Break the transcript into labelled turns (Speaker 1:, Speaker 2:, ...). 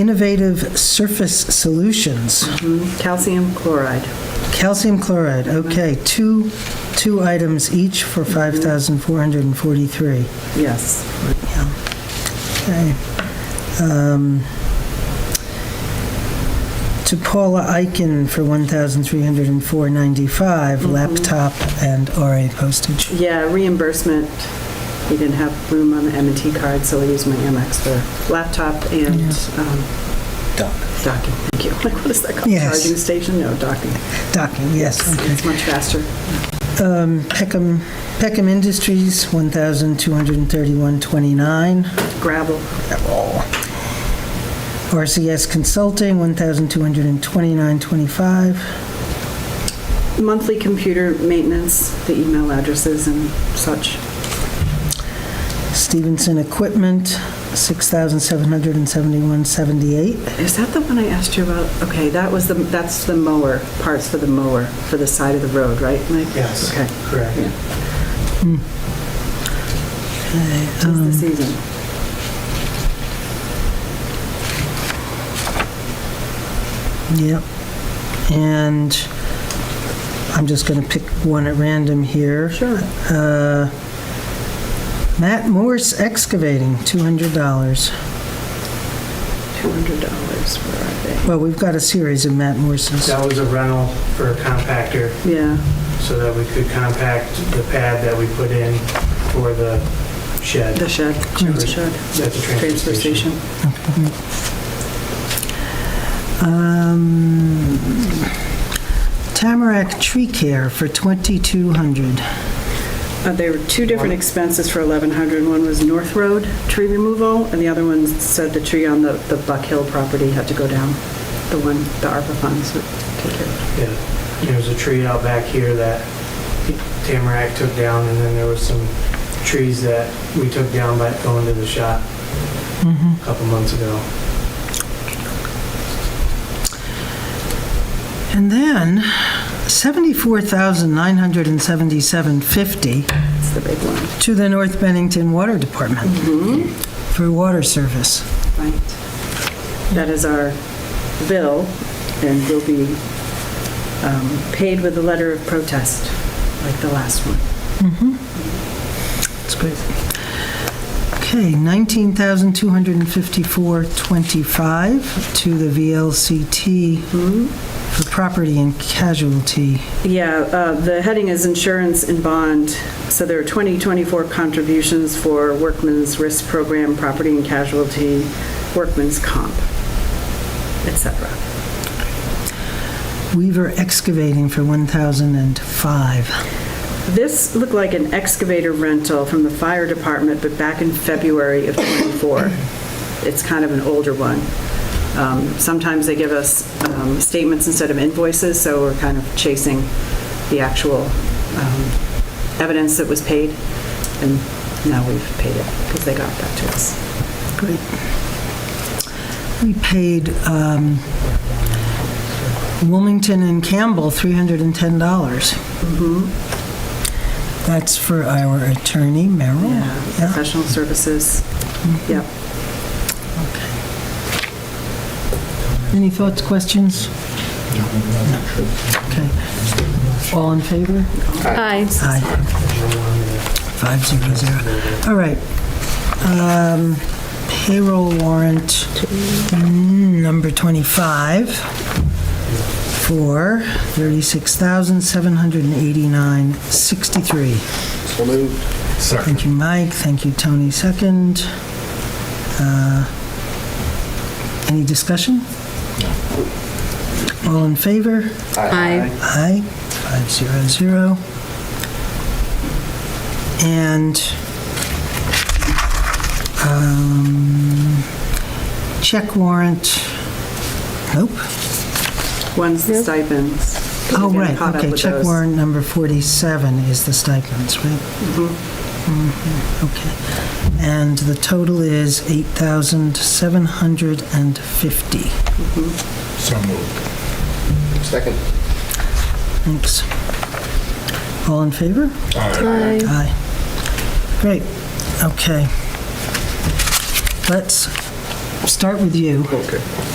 Speaker 1: Innovative Surface Solutions,
Speaker 2: Calcium chloride.
Speaker 1: calcium chloride, okay, two, two items each for 5,443.
Speaker 2: Yes.
Speaker 1: Okay. Um, To Paula Eichen for 1,304.95, laptop and RA postage.
Speaker 2: Yeah, reimbursement. He didn't have room on the m and T card, so I used my Amex for laptop and um,
Speaker 3: Doc.
Speaker 2: docking. Thank you. Like, what is that called?
Speaker 1: Yes.
Speaker 2: Charging station? No, docking.
Speaker 1: Docking, yes, okay.
Speaker 2: It's much faster.
Speaker 1: Um, Peckham, Peckham Industries, 1,231.29.
Speaker 2: Gravel.
Speaker 1: RCS Consulting, 1,229.25.
Speaker 2: Monthly computer maintenance, the email addresses and such.
Speaker 1: Stevenson Equipment, 6,771.78.
Speaker 2: Is that the one I asked you about? Okay, that was the, that's the mower, parts for the mower, for the side of the road, right, Mike?
Speaker 4: Yes.
Speaker 2: Okay,
Speaker 4: Correct.
Speaker 2: just
Speaker 1: Um.
Speaker 2: the season.
Speaker 1: Yep. And I'm just going to pick one at random here.
Speaker 2: Sure.
Speaker 1: Uh, Matt Morse Excavating, $200.
Speaker 2: $200, where are
Speaker 1: Well, we've got a series of Matt Morse's.
Speaker 4: That was a rental for a compactor
Speaker 2: they? Yeah,
Speaker 4: so that we could compact the pad that we put in for the shed
Speaker 2: the
Speaker 4: at
Speaker 2: shed, the shed,
Speaker 4: the
Speaker 2: transfer station.
Speaker 1: Um, Tamarack Tree Care for 2200
Speaker 2: Uh, There were two different expenses for 1,100. One was North Road tree removal, and the other one said the tree on the, the Buck Hill property had to go down. The one, the ARPA funds would take care of.
Speaker 4: Yeah, there was a tree out back here that Tamarack took down, and then there was some trees that we took down by going to the shop a couple months ago.
Speaker 1: And then 74,977.50
Speaker 2: It's the big one.
Speaker 1: to the North Bennington Water Department for water service.
Speaker 2: Right. That is our bill, and will be um, paid with a letter of protest, like the last one.
Speaker 1: That's great. Okay, 19,254.25 to the VLCT for property and casualty.
Speaker 2: Yeah, uh, the heading is insurance and bond. So there are 2024 contributions for workman's risk program, property and casualty, workman's comp, et cetera.
Speaker 1: Weaver Excavating for 1,005.
Speaker 2: This looked like an excavator rental from the fire department, but back in February of '24. It's kind of an older one. Um, Sometimes they give us um, statements instead of invoices, so we're kind of chasing the actual um, evidence that was paid, and now we've paid it, because they got that to us.
Speaker 1: Great. We paid um, Wilmington and Campbell $310. That's for our attorney, Merrill. Oh, Yeah. Mm-hmm.
Speaker 2: Professional services, yep.
Speaker 1: Any thoughts, questions? Okay. All in favor?
Speaker 5: Aye.
Speaker 1: Aye. Five zero zero. All right. Um, Payroll warrant mm, number 25 for 36,789.63.
Speaker 3: So moved. Second.
Speaker 1: Thank you, Mike. Thank you, Tony. Second. Uh, Any discussion? All in favor?
Speaker 5: Aye.
Speaker 1: Aye, five zero zero. And um, check warrant, nope.
Speaker 2: One's the stipends. 'cause
Speaker 1: Oh,
Speaker 2: we're getting
Speaker 1: right,
Speaker 2: caught up
Speaker 1: okay,
Speaker 2: with
Speaker 1: check
Speaker 2: those.
Speaker 1: warrant number 47 is the stipends, right?
Speaker 2: Mm-hmm.
Speaker 1: Mhm, Okay. And the total is 8,750.
Speaker 3: So moved. Second.
Speaker 1: Thanks. All in favor?
Speaker 5: Aye.
Speaker 1: Aye. Great, okay. Let's
Speaker 6: start with you.
Speaker 1: Okay.